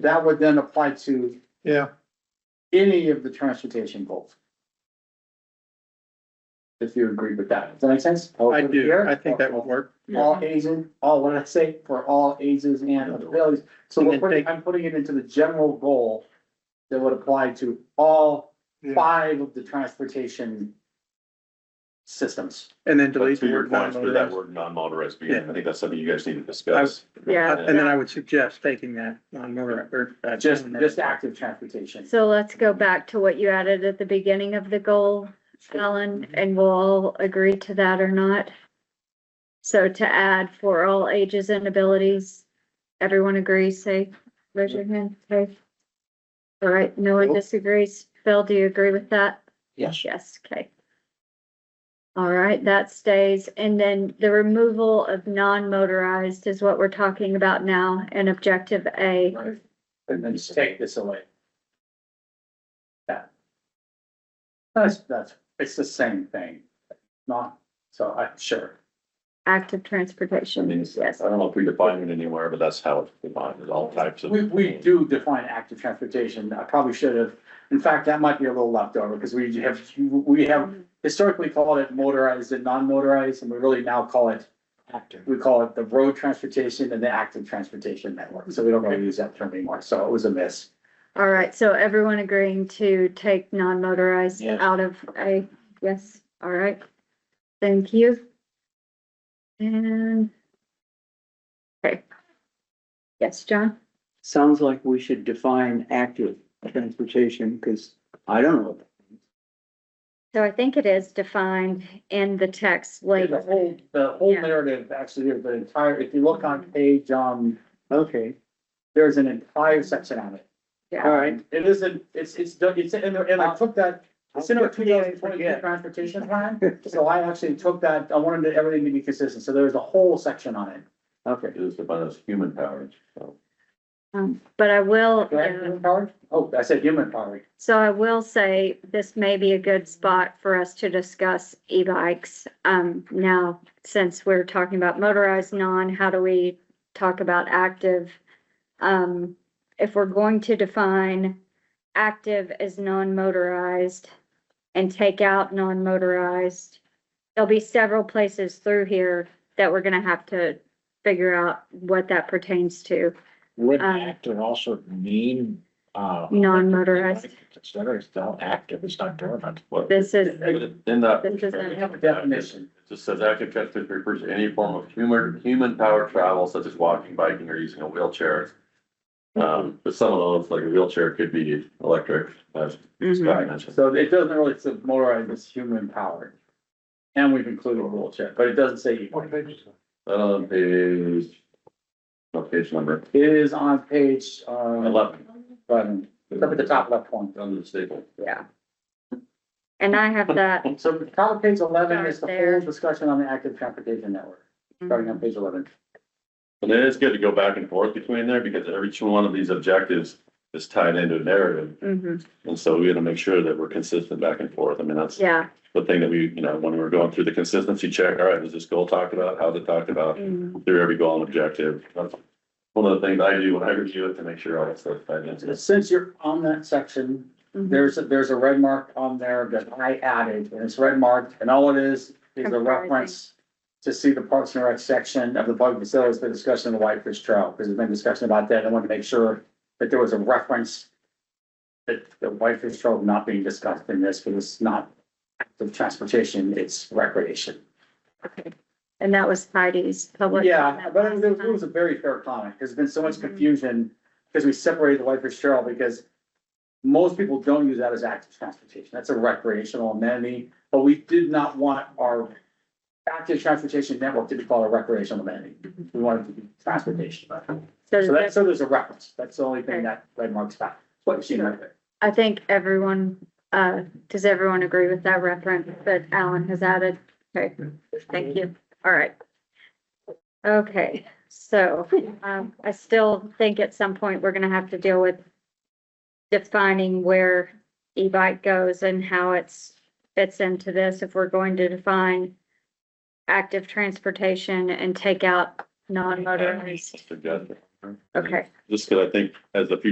that would then apply to Yeah, any of the transportation goals. If you agree with that, does that make sense? I do. I think that would work. All ages, all, what did I say, for all ages and abilities, so And we're then putting, take- I'm putting it into the general goal. That would apply to all Yeah. five of the transportation. Systems. And then But delete to the your word point, through that non-motorized. word non-motorized vehicle, I think that's something you guys need to discuss. discuss. Yeah. Uh, And then I would suggest taking that non-motorized or. uh, Just, doing that. just active transportation. So let's go back to what you added at the beginning of the goal, Alan, Mm-hmm. and we'll all agree to that or not. So to add for all ages and abilities, everyone agrees, say, raise your hand, okay? All right, no one disagrees. Phil, do you agree with that? Yes. Yes, okay. All right, that stays. And then the removal of non-motorized is what we're talking about now in objective A. Right. And then just take this away. Yeah. That's, that's, it's the same thing. Not, so I'm sure. Active I transportation, mean, yes. it's- I don't know if we define it anywhere, but that's how it's defined, is all types of. We, we do define active transportation. I probably should have. In fact, that might be a little leftover because we have, we have historically called it motorized and non-motorized, and we really now call it, Actor. we call it the road transportation and the active transportation network. So we don't really use that term anymore. So it was a miss. All right, so everyone agreeing to take non-motorized Yes. out of A, yes, all right. Thank you. And. Okay. Yes, John? Sounds like we should define active transportation, because I don't know. So I think it is defined in the text The later. whole, the whole Yeah. narrative, actually, of the entire, if you look on page, um, Okay, there's an entire section on it. all right. It isn't, it's, it's, done- it's, in there, and I took that, it's in our two thousand twenty-two transportation plan, so I actually took that, I wanted everything to be consistent, so there's a whole section on it. Okay, It is defined as human powers, so. Um, But I will, Correct, uh, human powered? Oh, I said human powered. So I will say this may be a good spot for us to discuss e-bikes. Um, now, since we're talking about motorized non, how do we talk about active? Um, if we're going to define active as non-motorized and take out non-motorized, there'll be several places through here that we're gonna have to figure out what that pertains to. Would Um, active also mean, uh? Non-motorized. Consider it's still active, it's not dormant. what- This is, In that. This isn't- We have a definition. It just says active transportation refers to any form of humor, human powered travel such as walking, biking, or using a wheelchair. Um, but some of those, like a wheelchair could be electric, as Mm-hmm. Mhm. Scott mentioned. So it doesn't really, it's motorized, it's human powered. And we've included a wheelchair, but it doesn't say e-bike. Uh, page. What page number? It is on page, uh, Eleven. button, it's up at the top left one. Under the staple. Yeah. and I have that. So top of page eleven is the Start there. whole discussion on the active transportation network, starting on page eleven. And then it's good to go back and forth between there because every each one of these objectives is tied into a narrative. Mhm. And so we gotta make sure that we're consistent back and forth. I mean, that's yeah. the thing that we, you know, when we were going through the consistency check, all right, was this goal talked about? How's it talked about? Mhm. Through every goal and objective. That's one of the things I do when I review it to make sure all that stuff tied into this. Since you're on that section, there's, a there's a red mark on there that I added, and it's red marked, and all it is, is a Comprising. reference to see the Parks and Rec section of the public facilities, the discussion of the Whitefish Trail, because there's been discussion about that, I wanted to make sure that there was a reference that the Whitefish Trail not being discussed in this, because it's not active transportation, it's recreation. Okay, and that was Heidi's public. Yeah, comment but it was- last it was a very fair comment. There's been so much confusion because we separated the Whitefish Trail because most people don't use that as active transportation. That's a recreational amenity, but we did not want our active transportation network to be called a recreational amenity. We wanted to be transportation. time. So that, So that's, so there's a reference. That's the only thing that red marks back. What you see right there. I think everyone, uh, does everyone agree with that reference that Alan has added? Okay, thank you. All right. Okay, so, um, I still think at some point we're gonna have to deal with defining where e-bike goes and how it's fits into this if we're going to define active transportation and take out non-motorized. Suggestion. Okay. Just because I think as the future